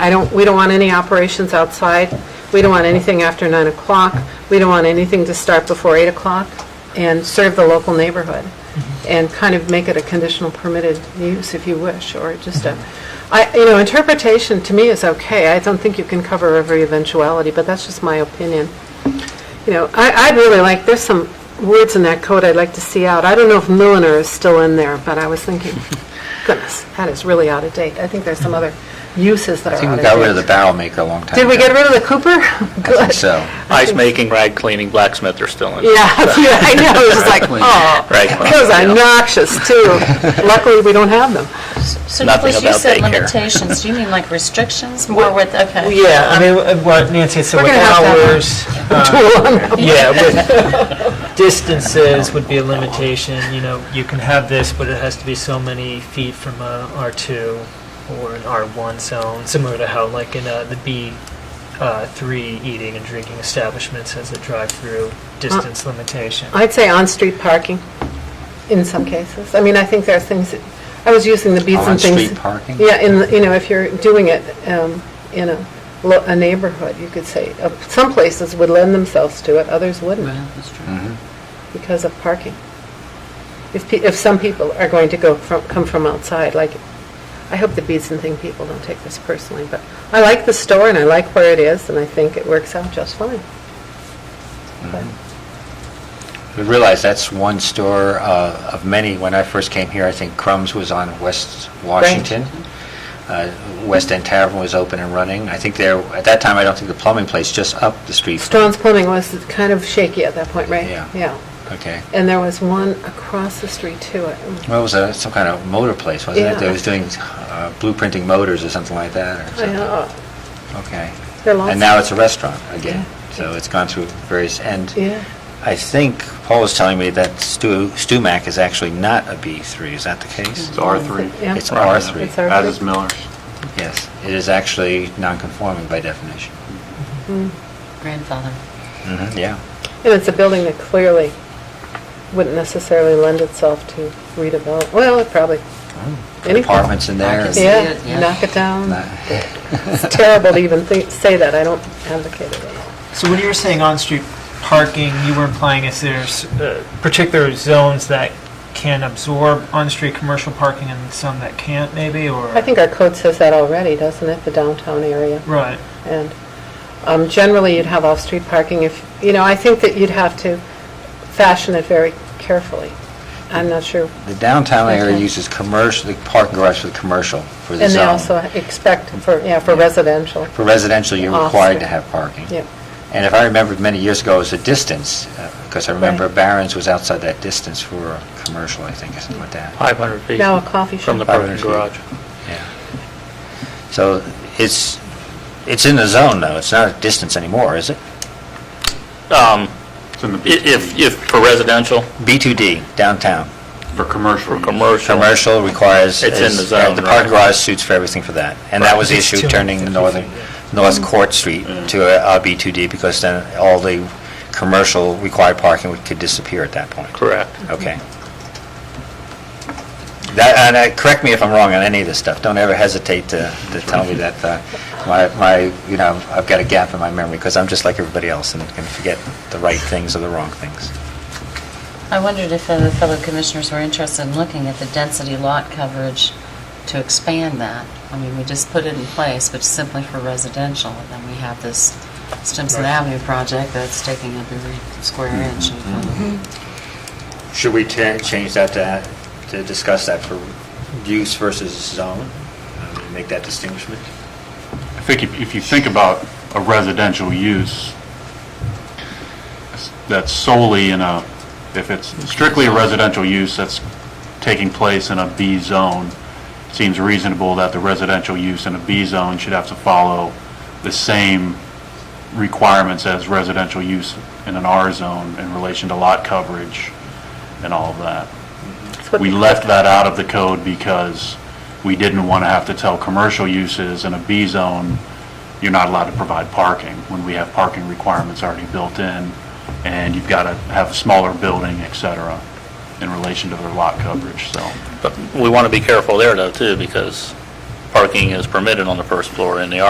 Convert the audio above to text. I don't, we don't want any operations outside. We don't want anything after 9 o'clock. We don't want anything to start before 8 o'clock and serve the local neighborhood and kind of make it a conditional permitted use if you wish, or just a, I, you know, interpretation to me is okay. I don't think you can cover every eventuality, but that's just my opinion. You know, I, I'd really like, there's some words in that code I'd like to see out. I don't know if milliner is still in there, but I was thinking, goodness, that is really out of date. I think there's some other uses that I are think out we of got rid of the date. barrel maker a long time ago. Did we get rid of the Cooper? I think Good. so. Ice making, rag cleaning, blacksmith are still in. Yeah, yeah, I know, it's just like, Rag queen. oh, Rag queen, those are yeah. noxious too. Luckily, we don't have them. So Nothing Nicholas, you about said daycare. limitations, do you mean like restrictions, more with, okay. Yeah, I mean, uh, what Nancy said We're with gonna have to have- hours, um, yeah, with distances would be a limitation, you know, you can have this, but it has to be so many feet from a R2 or an R1 zone, similar to how like in uh, the B, uh, three eating and drinking establishments has a drive-through Uh, distance limitation. I'd say on-street parking in some cases. I mean, I think there are things, that- I was using the beats and things. On-street parking? Yeah, in, the- you know, if you're doing it um, in a lo- a neighborhood, you could say, uh, some places would lend themselves to it, others wouldn't Mm-hmm, because of parking. If, pe- if some people are going to go from, come from outside, like, I hope the beats and thing people don't take this personally, but I like the store and I like where it is and I think it works out just fine. Mm-hmm. But- We realize that's one store uh, of many. When I first came here, I think Crumbs was on West Washington. Uh, West End Tavern was open and running. I think there, at that time, I don't think the plumbing place, just up the street. Strawn's Plumbing was kind of shaky at that point, right? Yeah. Okay. And there was one across the street Oh, too. I- Well, it was a- some kind of motor place, wasn't it? Yeah. That was doing uh, blueprinting motors or something like that, or I something. know. Okay. There are lots And now of- it's a restaurant again, Yeah. so it's gone through various, and Yeah. I think Paul was telling me that Stu Stumac is actually not a B3, is that the case? It's R3. Yeah. It's R3. It's R3. That is Miller's. Yes, it is actually non-conforming by definition. Grandfather. Mhm, Yeah. And it's a building that clearly wouldn't necessarily lend itself to redevelop, well, it probably, Oh. Anything. Apartments in there. I see can it, yeah, yeah. knock it down. Not- It's terrible to even think, say that, I don't advocate it at all. So when you were saying on-street parking, you were implying is there's uh, particular zones that can absorb on-street commercial parking and some that can't, maybe, or? I think our code says that already, doesn't it, the downtown area? Right. And um, generally, you'd have off-street parking if, you know, I think that you'd have to fashion it very carefully. I'm not sure. The downtown area Okay. uses commercial, the parking garage for the commercial, for the And they zone. also expect for, yeah, for residential. For residential, you're Off required to street. have parking. Yep. And if I remember many years ago, it was a distance, because I remember Right. Barron's was outside that distance for a commercial, I think, or something like that. 500 feet. Now a coffee From the shop. parking 500 feet. garage. Yeah. So it's, it's in the zone, though, it's not a distance anymore, is it? Um, It's in the i- If, if for residential, B2D, downtown. For commercial. for commercial. Commercial requires... It's in is- the zone, The parking right. garage suits for everything for that. And that was the It's issue, 250 turning feet, northern, North Court Street Mm. to a a B2D, because then all the commercial required parking would- could disappear at that point. Correct. Okay. That, and uh, correct me if I'm wrong on any of this stuff. Don't ever hesitate to, to tell me that uh, my, my, you know, I've got a gap in my memory, because I'm just like everybody else and can forget the right things or the wrong things. I wondered if other fellow commissioners were interested in looking at the density lot coverage to expand that. I mean, we just put it in place, but simply for residential, and then we have this Stimson Avenue project that's taking up every square inch. Should we ta- change that to, to discuss that for use versus zone? Uh, Make that distinguishment? I think if if you think about a residential use that's solely in a, if it's strictly a residential use that's taking place in a B zone, it seems reasonable that the residential use in a B zone should have to follow the same requirements as residential use in an R zone in relation to lot coverage and all of that. That's what We the- left that out of the code because we didn't want to have to tell commercial uses in a B zone, you're not allowed to provide parking, when we have parking requirements already built in, and you've got to have a smaller building, et cetera, in relation to their lot coverage, so. But we want to be careful there, though, too, because parking is permitted on the first floor in the R